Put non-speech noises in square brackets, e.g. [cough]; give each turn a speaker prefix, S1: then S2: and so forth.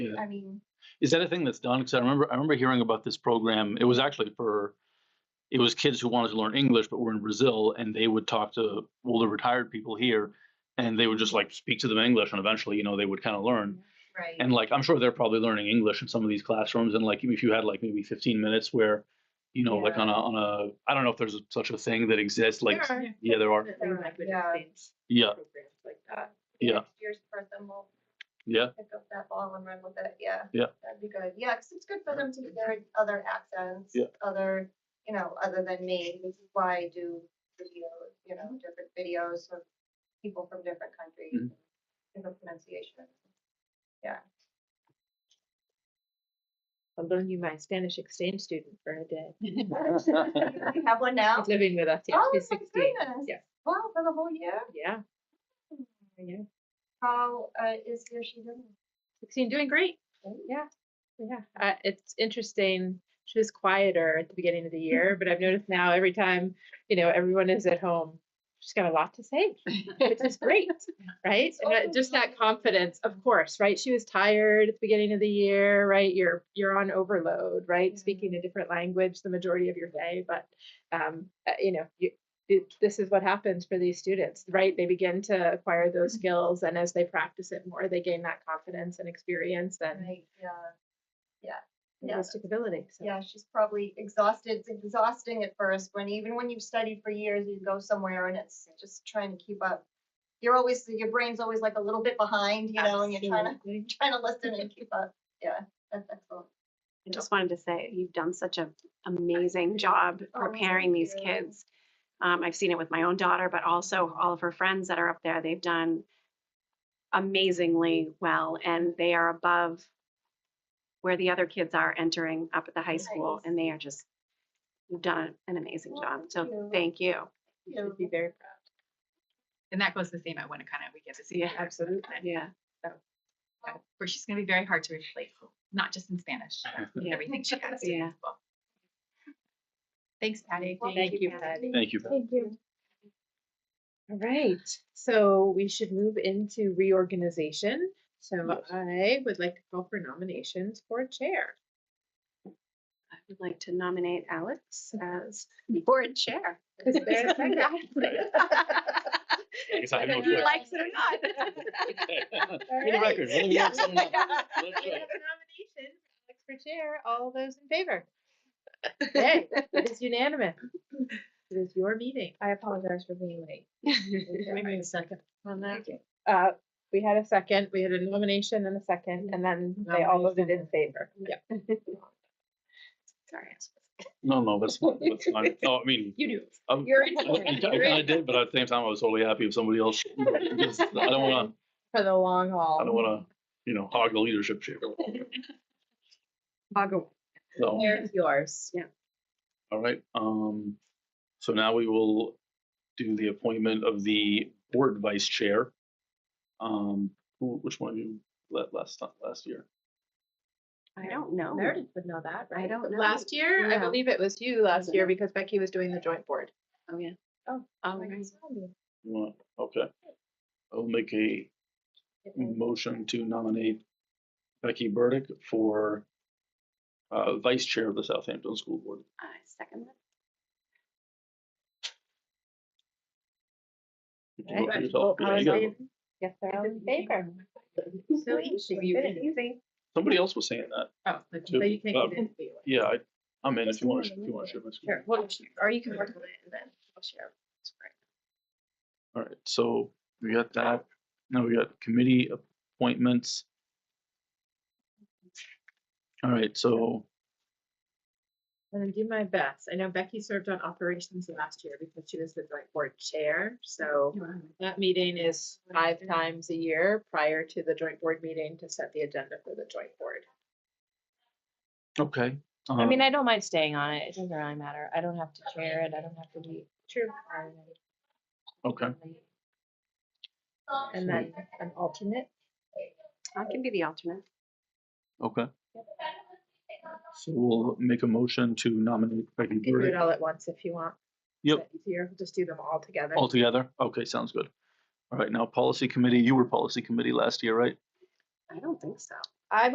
S1: Yeah.
S2: I mean,
S1: Is that a thing that's done? Because I remember I remember hearing about this program. It was actually for it was kids who wanted to learn English but were in Brazil, and they would talk to older retired people here, and they would just like speak to them in English, and eventually, you know, they would kind of learn.
S2: right.
S1: And like I'm sure they're probably learning English in some of these classrooms, and like if you had like maybe 15 minutes where, you know, like on a on a I don't know if there's such a thing that exists. Like
S2: There are
S1: yeah, there
S2: [laughs]
S1: are.
S2: There are,
S1: Yeah,
S2: yeah. programs like that.
S1: Yeah.
S2: uh, Next year's person will
S1: yeah,
S2: [laughs] pick up that ball and run with it, yeah.
S1: Yeah.
S2: That'd be good, yeah, 'cause it's good for them to hear other accents,
S1: Yeah.
S2: other, you know, other than me, which is why I do videos, you
S1: Mm-hmm.
S2: know, different videos of people from different countries,
S1: Mhm.
S2: different pronunciations.
S1: [laughs]
S3: I'll loan you my Spanish exchange student for a day.
S2: You Have one now?
S3: She's living with us. [laughs] Yeah,
S2: Oh, my
S3: she's 16.
S2: goodness.
S3: Yeah.
S2: Wow, for the whole year?
S3: Yeah, yeah.
S2: How, uh, is your, she doing?
S3: 16, doing great. Yeah, yeah. Uh, it's interesting. She was quieter at the beginning of the year, but I've noticed now every time, you know, everyone is at home, she's got a lot to say, which is great, right? And that- just that confidence, of course, right? She was tired at the beginning of the year, right? You're you're on overload, right? Speaking a different language the majority of your day, but um, uh, you know, you, it- this is what happens for these students, right? They begin to acquire those skills, and as they practice it more, they gain that confidence and experience and
S2: Right, yeah. Yeah.
S3: linguistic ability. So.
S2: Yeah, she's probably exhausted. It's exhausting at first when even when you've studied for years, you go somewhere and it's just trying to keep up. You're always your brain's always like a little bit behind, you know, and you're trying to
S3: Absolutely.
S2: trying to listen and keep up. Yeah, that's excellent.
S4: I just wanted to say, you've done such an amazing job
S2: Oh,
S4: preparing these
S2: thank you.
S4: kids. Um, I've seen it with my own daughter, but also all of her friends that are up there. They've done amazingly well, and they are above where the other kids are entering up at the high school,
S2: Nice.
S4: and they are just, you've done an amazing
S2: Well,
S4: job.
S2: thank
S4: So
S2: you.
S4: thank you.
S3: You should be very proud.
S5: And that goes the same at Winnicott. We get to see
S4: Yeah,
S5: her.
S3: Absolutely.
S4: Yeah.
S5: Uh, Where she's going to be very hard to replace, not just in Spanish, but
S1: [laughs]
S5: with
S4: Yeah.
S5: everything she has.
S4: Yeah.
S5: Well, Thanks, Patty.
S2: Well,
S3: Thank you, Patty.
S4: Patty.
S1: [laughs] thank you.
S3: Thank you. All right, so we should move into reorganization. So I would like to call for nominations for chair.
S4: I would like to nominate Alex as board chair.
S2: [laughs]
S5: [laughs]
S3: Is there a second?
S1: I guess I have no
S3: Whether
S1: choice.
S3: you like
S4: it or not.
S3: [laughs] All
S1: For the
S3: right.
S1: record, whether we like
S5: [laughs]
S1: someone or not, let's
S3: We
S1: try
S3: have
S1: it.
S3: a nomination for Alex for chair. All those in
S4: [laughs]
S3: favor? Hey, it is unanimous. It is your meeting. I apologize for being late. Maybe a second on that. Uh, we had a second, we had a nomination and a second, and then they all voted in favor. Yeah.
S4: Sorry.
S1: No, no, that's not. That's fine. No, I mean,
S3: You do.
S1: I'm,
S3: You're
S1: I,
S4: [laughs]
S1: kind of did, but at the same time, I was totally happy with somebody else. you know, because I don't want
S3: For the long haul.
S1: to. I don't want to. You know, hog the leadership chair. So,
S3: There's yours.
S1: all right. Um, so now we will do the appointment of the board vice chair. Um, who, which one you let last time last year?
S4: I don't know.
S3: Meredith would know that, right?
S4: Oh. don't
S3: But
S4: know.
S3: Last year, I
S4: No.
S3: believe it was you last
S4: it
S3: year
S4: not?
S3: because Becky was doing the joint board.
S4: Oh, yeah.
S3: Oh,
S4: All
S3: Like,
S4: right.
S1: You want? Okay. I'll make a motion to nominate Becky Burdick for uh, vice chair of the Southampton School Board.
S4: I uh, second that.
S1: You can
S3: Right.
S1: vote for yourself.
S3: Well,
S1: Yeah,
S3: I
S1: you
S3: was
S1: gotta
S3: like,
S1: vote.
S3: Yes, they're all in favor. So easy.
S4: You
S3: good.
S4: can-
S1: Somebody else was saying that.
S5: Oh, the
S1: too.
S3: So you can
S1: Uh,
S3: get in.
S1: Yeah, I, I'm in if you want to,
S4: Just
S1: if you want to share my screen.
S3: Sure. Well, or you can work on it and then I'll share.
S1: All right, so we got that. Now we got committee appointments. All right, so,
S3: I'm gonna do my best. I know Becky served on operations last year because she was the joint board chair,
S4: Oh,
S3: so that meeting is five times a year prior to the joint board meeting to set the agenda for the joint board.
S1: okay.
S6: I mean,
S1: um,
S6: I don't mind staying on it. It doesn't really matter. I don't have to chair it. I don't have to be.
S3: True.
S1: uh, Okay,
S3: And then an alternate.
S4: I can be the alternate.
S1: okay. So we'll make a motion to nominate Becky
S3: You can do it
S1: Burdick
S3: all at once if you want.
S1: Yep.
S3: Is that Easier, just do them all together.
S1: altogether. Okay, sounds good. All right, now policy committee, you were policy committee last year, right?
S4: I don't think so.